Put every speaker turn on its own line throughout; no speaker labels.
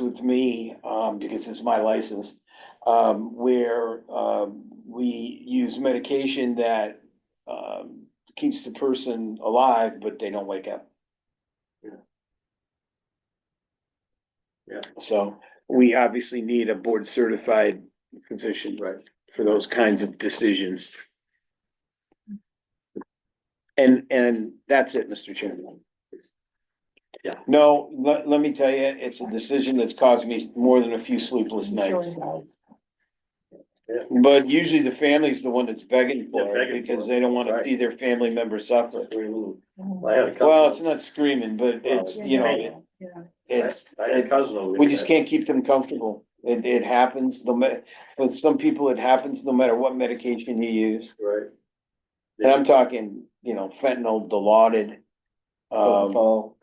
with me, um, because it's my license, um, where, um, we use medication that, um, keeps the person alive, but they don't wake up.
Yeah. Yeah.
So we obviously need a board certified physician.
Right.
For those kinds of decisions. And, and that's it, Mr. Chairman.
Yeah.
No, let, let me tell you, it's a decision that's caused me more than a few sleepless nights. But usually the family's the one that's begging for
Yeah,
it
begging for
because
it,
they don't wanna
right.
see their family member suffer.
Oh,
I had a cousin.
Well, it's not screaming, but it's,
Well,
you know,
yeah.
it's,
I had a cousin over there.
we just can't keep them comfortable. It, it happens, no matter, with some people, it happens no matter what medication you use.
Right.
And I'm talking, you know, fentanyl, Dilaudid. Um,
Oh,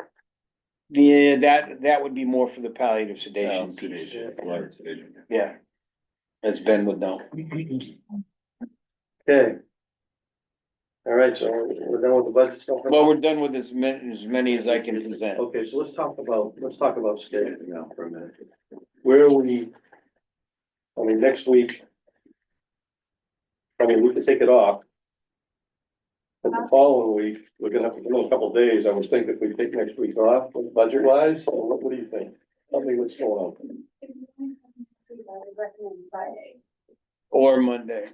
yeah, that, that would be more for the palliative
Oh,
sedation piece. Yeah. As Ben would know.
Okay. All right, so we're done with the budget stuff.
Well, we're done with as many, as many as I can present.
Okay, so let's talk about, let's talk about staffing now for a minute. Where are we? I mean, next week. I mean, we could take it off. But the following week, we're gonna have to go a couple of days, I would think if we take next week off, budget wise, so what, what do you think? Tell me what's going on.
Or Monday,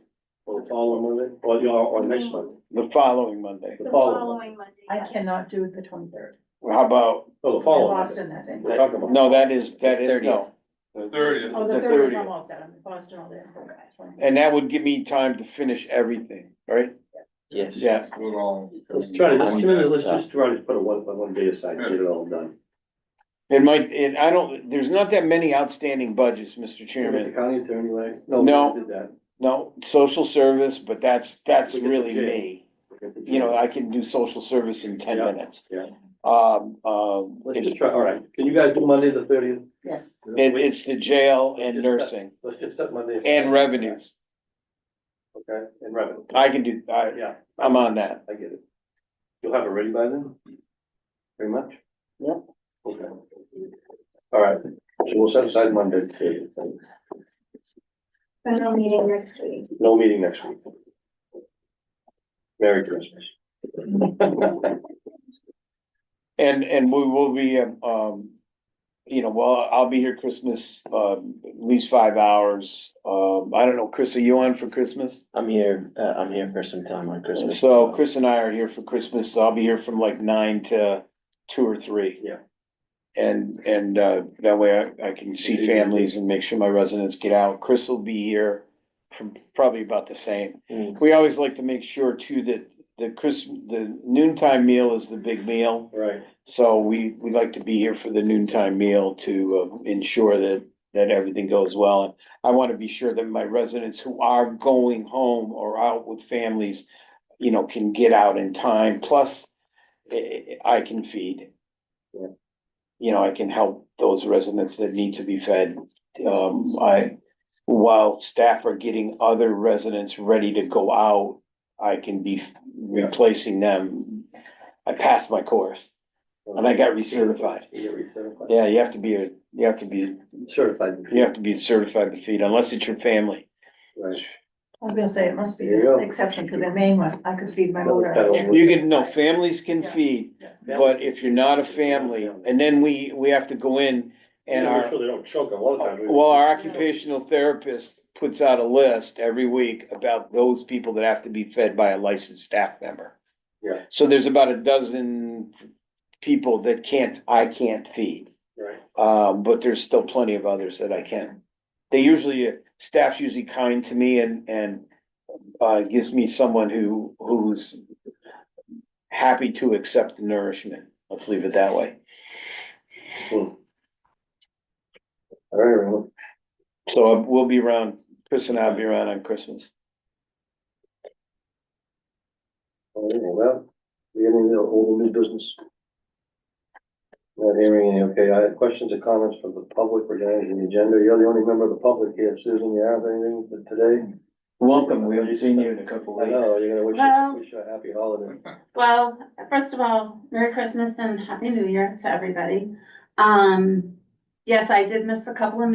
Or the following Monday, or the, or next Monday,
the following Monday.
The
The
following
following Monday,
I
yes.
cannot do the twenty-third.
Well, How about,
oh, the
I'm
following
lost
Monday.
in that day.
We're talking about.
no, that is, that is, no.
Thirtieth.
Oh,
The
the third,
30th.
I'm all set, I'm in Boston all day.
And that would give me time to finish everything, right?
Yes.
Yeah,
We're all-
Let's try to, let's, do it, let's just try to put a one, one day aside, get it all done.
it might, and I don't, there's not that many outstanding budgets, Mr.
The
Chairman.
county attorney, like, no,
No.
we did that.
No, social service, but that's, that's
We get the
really
jail.
me. You know, I can do social service in ten
Yeah,
minutes.
yeah.
Um, um,
Let's just
it-
try, all right, can you guys do Monday the thirtieth?
Yes,
it's the jail and nursing
Let's just set Monday. aside.
and revenues.
Okay, and revenue,
I can do, I,
yeah,
I'm on that.
I get it. You'll have it ready by then? Pretty much? Yeah. Okay. All right, so we'll set aside Monday, the 30th.
Final meeting next week.
no meeting next week. Merry Christmas.
And, and we will be, um, um, you know, well, I'll be here Christmas, um, at least five hours. Um, I don't know, Chris, are you on for Christmas?
I'm here, uh, I'm here for some time on Christmas.
So Chris and I are here for Christmas, so I'll be here from like nine to two or three.
Yeah.
And, and, uh, that way I, I can see families and make sure my residents get out. Chris will be here from probably about the same.
Mm.
We always like to make sure too that the Chris, the noontime meal is the big meal.
Right,
So we, we like to be here for the noontime meal to uh, ensure that, that everything goes well. And I want to be sure that my residents who are going home or out with families, you know, can get out in time, plus eh, I can feed.
Yeah.
You know, I can help those residents that need to be fed. Um, I, while staff are getting other residents ready to go out, I can be replacing them. I passed my course. And I got recertified.
Yeah, recertified.
Yeah, you have to be a, you have to be,
Certified.
you have to be certified to feed unless it's your family.
Right.
I was gonna say, it must be
There you go.
an exception, because in Maine, when I could feed my motor.
That'll work.
You can, no, families can feed, but if you're not a family, and then we, we have to go in and
Yeah, we're
our,
Sure they don't choke a lot of times.
well, our occupational therapist puts out a list every week about those people that have to be fed by a licensed staff member.
Yeah.
So there's about a dozen people that can't, I can't feed.
Right.
Um, but there's still plenty of others that I can. They usually, staff's usually kind to me and, and, uh, gives me someone who, who's happy to accept the nourishment. Let's leave it that way.
All right, everyone.
So uh, we'll be around, Chris and I'll be around on Christmas.
All right, Oh, well, we have any other old or new business? Not hearing any, okay, I have questions or comments from the public regarding the agenda, you're the only member of the public here, Susan, you have anything for today?
Welcome, we haven't seen you in a couple
I know, you're gonna wish us,
Well-
wish you a happy holiday.
Well, first of all, Merry Christmas and Happy New Year to everybody. Um, Yes, I did miss a couple of